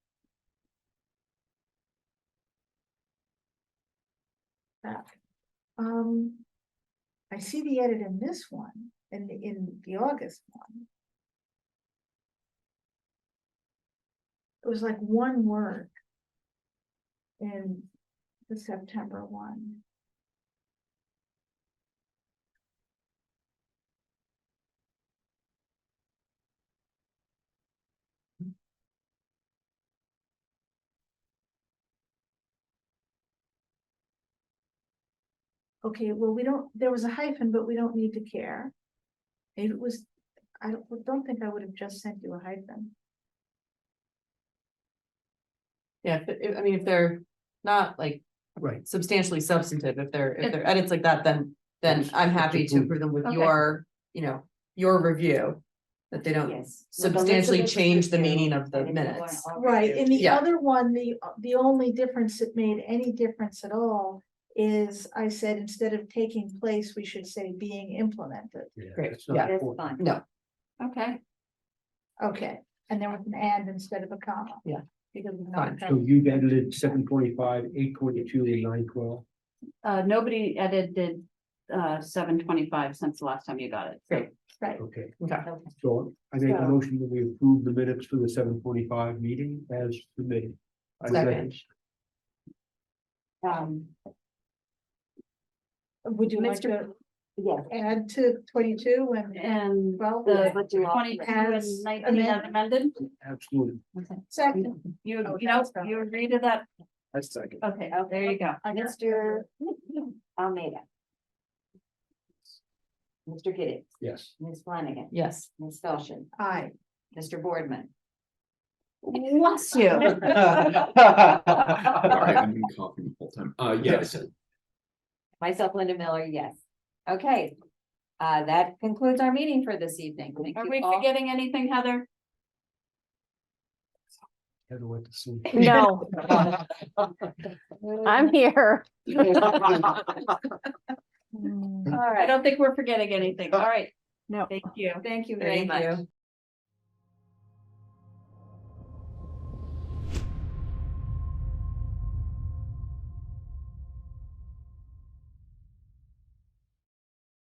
that. Um. I see the edit in this one, in the, in the August one. It was like one word. In the September one. Okay, well, we don't, there was a hyphen, but we don't need to care. If it was, I don't, don't think I would have just sent you a hyphen. Yeah, if- if, I mean, if they're not like Right. substantially substantive, if they're, if they're edits like that, then, then Yes, I'm it's happy to approved. approve them with Okay. your, you know, your review. That they don't Yes. substantially change the meaning of the minutes. Right, in the Yeah. other one, the, the only difference that made any difference at all is I said instead of taking place, we should say being implemented. Yeah, Great, it's not yeah. That's important. fine. No. Okay, Okay, and then with an and instead of a comma. Yeah. Because. we're Fine. not So you've edited seven twenty-five, eight twenty-two, and nine twelve. uh, nobody edited, uh, seven twenty-five since the last time you got it. so- Great. Right, Okay, Okay, so I make a So- motion that we approve the minutes for the seven forty-five meeting as submitted. I second, Um, would you like to yeah, add to twenty-two and and twelve? the twenty-two As and nineteen as amended. amended, Absolutely. Second. you, Oh, you know, that's right. Oh. you agree to that, That's second. okay, there you go. I guess- Mr. Almeida. Mr. Giddings, Yes. Ms. Flanagan, yes. Ms. Felson, Aye. Mr. Boardman. Bless you. Sorry, I've been coughing the whole time. Uh, yes, Myself, Linda Miller, yes. Okay. Uh, that concludes our meeting for this evening. Thank Are you we all. forgetting anything, Heather? Heather went to sleep. No, I'm here. I don't think we're forgetting anything, all right. No. Oh. Thank you. Thank you very Thank much. you.